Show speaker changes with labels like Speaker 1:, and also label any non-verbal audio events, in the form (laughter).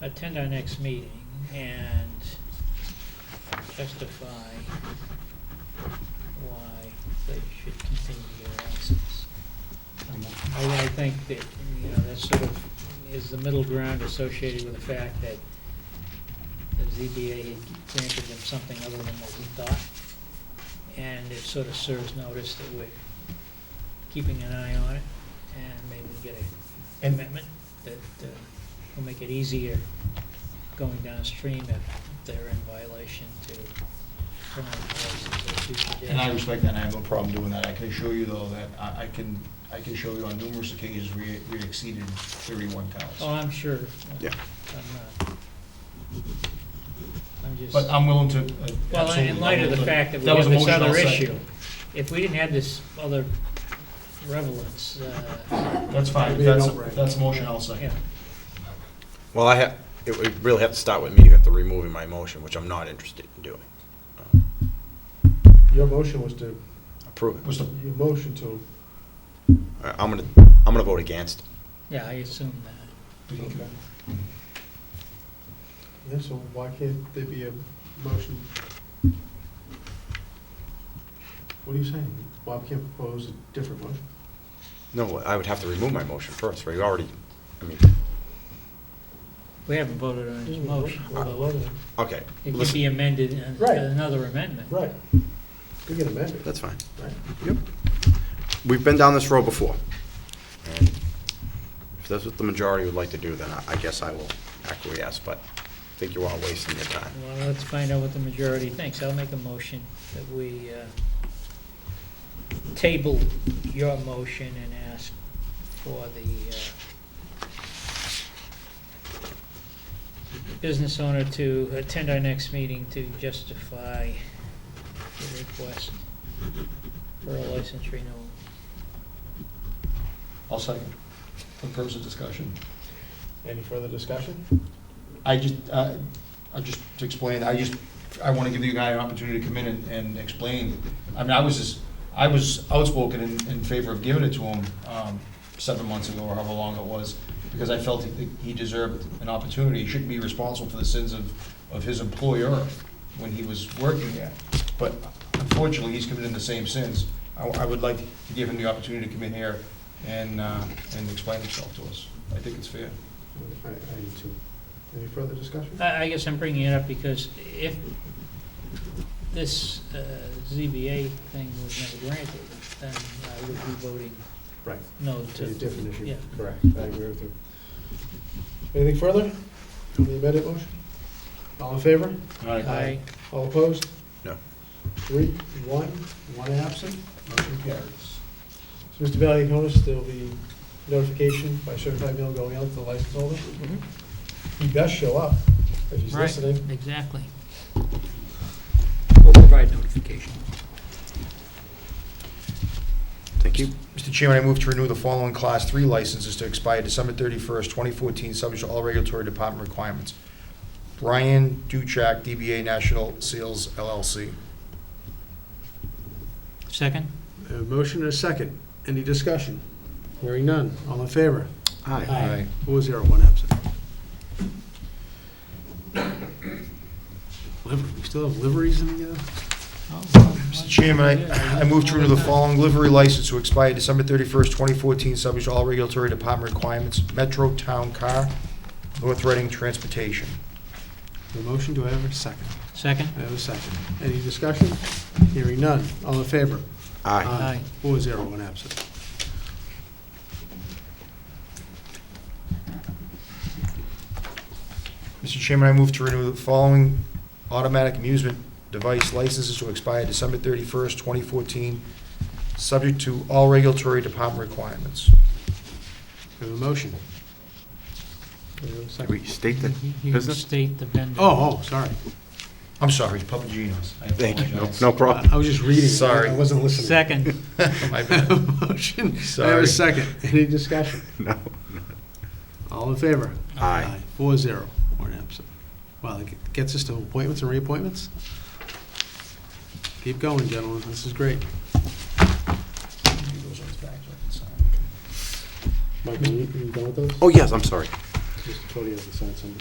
Speaker 1: attend our next meeting and justify why they should continue your license. I, I think that, you know, that sort of is the middle ground associated with the fact that the ZBA had granted them something other than what we thought. And it sort of serves notice that we're keeping an eye on it and maybe get a
Speaker 2: And-
Speaker 1: commitment that uh, will make it easier going downstream if they're in violation to turn on the license at a future date.
Speaker 2: And I respect that, and I have no problem doing that. I can assure you, though, that I, I can, I can show you on numerous occasions we, we exceeded thirty-one
Speaker 1: Oh,
Speaker 2: cows.
Speaker 1: I'm sure.
Speaker 3: Yeah.
Speaker 1: I'm not. I'm just,
Speaker 2: But I'm willing to. uh,
Speaker 1: well,
Speaker 2: absolutely,
Speaker 1: in light of the
Speaker 2: I'm willing to-
Speaker 1: fact that we
Speaker 2: That was
Speaker 1: have
Speaker 2: a
Speaker 1: this
Speaker 2: motion, I'll
Speaker 1: other
Speaker 2: second.
Speaker 1: issue, if we didn't have this other relevance, uh,
Speaker 2: That's fine,
Speaker 3: It'd be
Speaker 2: that's,
Speaker 3: an outright.
Speaker 2: that's a motion, I'll
Speaker 1: yeah.
Speaker 2: second.
Speaker 4: Well, I have, it would really have to start with me, you have to remove my motion, which I'm not interested in doing.
Speaker 3: Your motion was to,
Speaker 4: Approve it.
Speaker 2: Was the,
Speaker 3: your motion to,
Speaker 4: I- I'm gonna, I'm gonna vote against.
Speaker 1: Yeah, I assume that.
Speaker 3: okay. Yeah, so why can't there be a motion? What are you saying? Bob can't propose a different motion?
Speaker 4: No, I would have to remove my motion first, right? You already, I mean,
Speaker 1: We haven't voted on his motion, although
Speaker 3: Right.
Speaker 4: okay.
Speaker 1: it could
Speaker 4: listen,
Speaker 1: be amended in
Speaker 3: Right.
Speaker 1: another amendment.
Speaker 3: We can amend it,
Speaker 4: That's fine.
Speaker 3: right?
Speaker 4: Yep. We've been down this road before. And If that's what the majority would like to do, then I- I guess I will acquiesce, but I think you're all wasting your time.
Speaker 1: Well, let's find out what the majority thinks. I'll make a motion that we uh, table your motion and ask for the uh, business owner to attend our next meeting to justify the request for a license renewal.
Speaker 2: I'll second, for the purpose of discussion.
Speaker 3: Any further discussion?
Speaker 2: I just, uh, I just to explain, I just, I want to give you guy an opportunity to come in and, and explain. I mean, I was just, I was outspoken in, in favor of giving it to him, um, seven months ago or however long it was, because I felt that he deserved an opportunity. He shouldn't be responsible for the sins of, of his employer when he was working there. But unfortunately, he's committed the same sins. I, I would like to give him the opportunity to come in here and, uh, and explain himself to us. I think it's fair.
Speaker 3: I, I need to. Any further discussion?
Speaker 1: I, I guess I'm bringing it up because if this uh, ZBA thing was never granted, then I would be voting
Speaker 3: Right.
Speaker 1: no
Speaker 3: It's a
Speaker 1: to
Speaker 3: different issue.
Speaker 1: Yeah.
Speaker 3: Correct, I agree with you. Anything further on the amended motion? All in favor?
Speaker 2: All right.
Speaker 1: Aye.
Speaker 3: All opposed?
Speaker 4: No.
Speaker 3: Three, one, one absent, motion carries. So, Mr. Bailey, you notice there'll be notification by certified mail going out to the license holder.
Speaker 2: Mm-hmm.
Speaker 3: He does show up, if he's
Speaker 1: Right.
Speaker 3: listening.
Speaker 1: Exactly. We'll provide notification.
Speaker 4: Thank you.
Speaker 2: Mr. Chairman, I move to renew the following Class 3 licenses to expire December 31st, 2014, subject to all regulatory department requirements. Brian Duchek, DBA National Sales LLC.
Speaker 1: Second?
Speaker 3: A motion and a second. Any discussion? Hearing none. All in favor?
Speaker 4: Aye.
Speaker 3: Aye. Four zero, one absent. (coughs) Liver- We still have liveries in the, uh,
Speaker 2: Mr. Chairman, I I move to renew the following livery license to expire December 31st, 2014, subject to all regulatory department requirements. Metro Town Car, North Reading Transportation.
Speaker 3: the motion? Do I have a second?
Speaker 1: Second?
Speaker 3: I have a second. Any discussion? Hearing none. All in favor?
Speaker 4: Aye.
Speaker 1: Aye.
Speaker 3: Four zero, one absent.
Speaker 2: Mr. Chairman, I move to renew the following automatic amusement device licenses to expire December 31st, 2014, subject to all regulatory department requirements.
Speaker 3: I have a motion. Do I have a second?
Speaker 4: We state that.
Speaker 1: You can
Speaker 4: Business?
Speaker 1: state the vendor.
Speaker 3: Oh, oh, sorry.
Speaker 2: I'm sorry, Papagenos. I
Speaker 4: Thank you. No-
Speaker 2: apologize.
Speaker 4: No problem.
Speaker 3: I I was just reading. I-
Speaker 2: Sorry.
Speaker 3: I wasn't listening. (laughs)
Speaker 1: Second,
Speaker 2: (laughs) My bad.
Speaker 3: Motion. I have
Speaker 2: Sorry.
Speaker 3: a second. Any discussion?
Speaker 4: No.
Speaker 3: All in favor?
Speaker 4: Aye.
Speaker 3: Four zero, one absent. Wow, it gets us to appointments and reappointments? Keep going, gentlemen, this is great. Michael, you you done with those?
Speaker 4: Oh, yes, I'm sorry.
Speaker 3: Just Cody hasn't signed some.